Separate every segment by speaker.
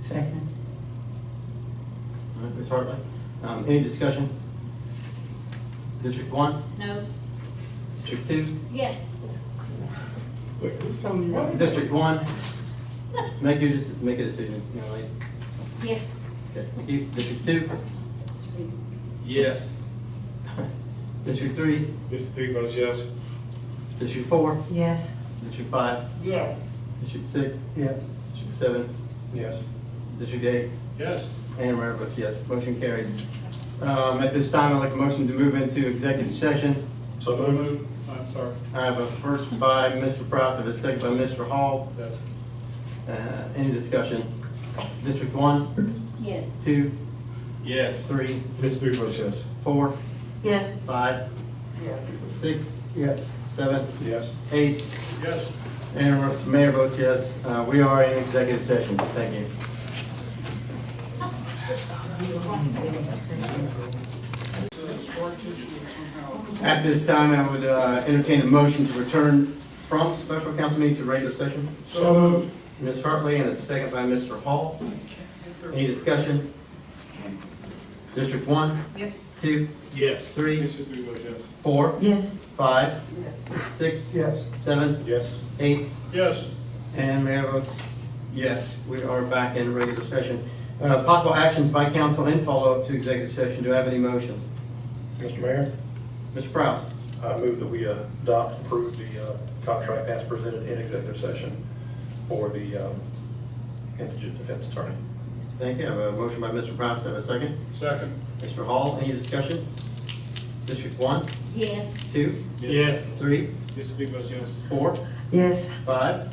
Speaker 1: Second.
Speaker 2: All right, Ms. Hartley, um, any discussion? District one,
Speaker 3: No,
Speaker 2: district two,
Speaker 3: yes,
Speaker 1: Yeah, who told me that?
Speaker 2: district one, make your, dec- make a decision, you know, like,
Speaker 3: yes.
Speaker 2: okay, thank you. district two,
Speaker 4: Yes.
Speaker 2: district three,
Speaker 4: Mr. Three votes yes.
Speaker 2: district four,
Speaker 1: Yes.
Speaker 2: district five,
Speaker 3: Yes.
Speaker 2: district six,
Speaker 1: Yes.
Speaker 2: district seven,
Speaker 4: Yes.
Speaker 2: district eight,
Speaker 4: Yes.
Speaker 2: and Mayor votes yes, motion carries. Um, at this time, I'd like a motion to move into executive session.
Speaker 4: So moved. I'm sorry.
Speaker 2: I have a first by Mr. Prowse, a second by Mr. Hall,
Speaker 4: Yes.
Speaker 2: uh, any discussion? District one,
Speaker 3: Yes.
Speaker 2: two,
Speaker 4: Yes.
Speaker 2: three,
Speaker 4: Mr. Three votes yes.
Speaker 2: four,
Speaker 1: Yes.
Speaker 2: five, six,
Speaker 1: Yes.
Speaker 2: seven,
Speaker 4: Yes.
Speaker 2: eight,
Speaker 4: Yes.
Speaker 2: and the mayor votes yes. Uh, We are in executive session. Thank you. At this time, I would uh, entertain a motion to return from special council meeting to regular session.
Speaker 4: So moved.
Speaker 2: Ms. Hartley and a second by Mr. Hall. Any discussion? District one,
Speaker 3: Yes.
Speaker 2: two,
Speaker 4: Yes.
Speaker 2: Three.
Speaker 4: Mr. Three votes yes.
Speaker 2: four,
Speaker 1: Yes.
Speaker 2: five, six,
Speaker 1: Yes.
Speaker 2: seven,
Speaker 4: Yes.
Speaker 2: eight,
Speaker 4: Yes.
Speaker 2: And mayor votes yes. We are back in regular session. Uh, Possible actions by council and follow-up to executive session. Do I have any motions?
Speaker 5: Mr. Mayor,
Speaker 2: Mr. Prowse,
Speaker 5: I move that we adopt, approve the uh, contract as presented in executive session for the um, indigent defense attorney.
Speaker 2: thank you. I have a motion by Mr. Prowse. Do I have a second?
Speaker 4: Second.
Speaker 2: Mr. Hall, any discussion? District one,
Speaker 3: Yes.
Speaker 2: two,
Speaker 4: Yes.
Speaker 2: three,
Speaker 4: Mr. Three votes yes.
Speaker 2: four,
Speaker 1: Yes.
Speaker 2: five,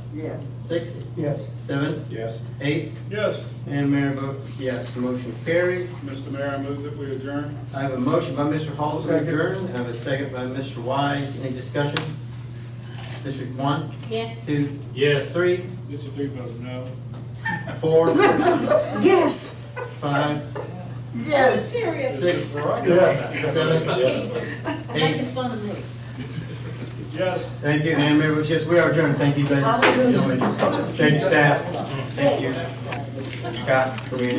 Speaker 2: six,
Speaker 1: Yes.
Speaker 2: seven,
Speaker 5: Yes.
Speaker 2: eight,
Speaker 4: Yes.
Speaker 2: and mayor votes yes. Motion carries.
Speaker 4: Mr. Mayor, I move that we adjourn.
Speaker 2: I have a motion by Mr. Hall to
Speaker 1: Second.
Speaker 2: adjourn. I have a second by Mr. Wise. Any discussion? District one,
Speaker 3: Yes.
Speaker 2: two,
Speaker 4: Yes.
Speaker 2: three,
Speaker 4: Mr. Three votes no.
Speaker 2: four,
Speaker 1: Yes.
Speaker 2: five,
Speaker 1: Yes.
Speaker 2: Six.
Speaker 4: Yes.
Speaker 2: Seven.
Speaker 3: Making fun of me.
Speaker 4: Yes.
Speaker 2: Thank you, and Mayor Bush, yes, we are adjourned, thank you, ladies and gentlemen, thank you, staff, thank you, Scott, for being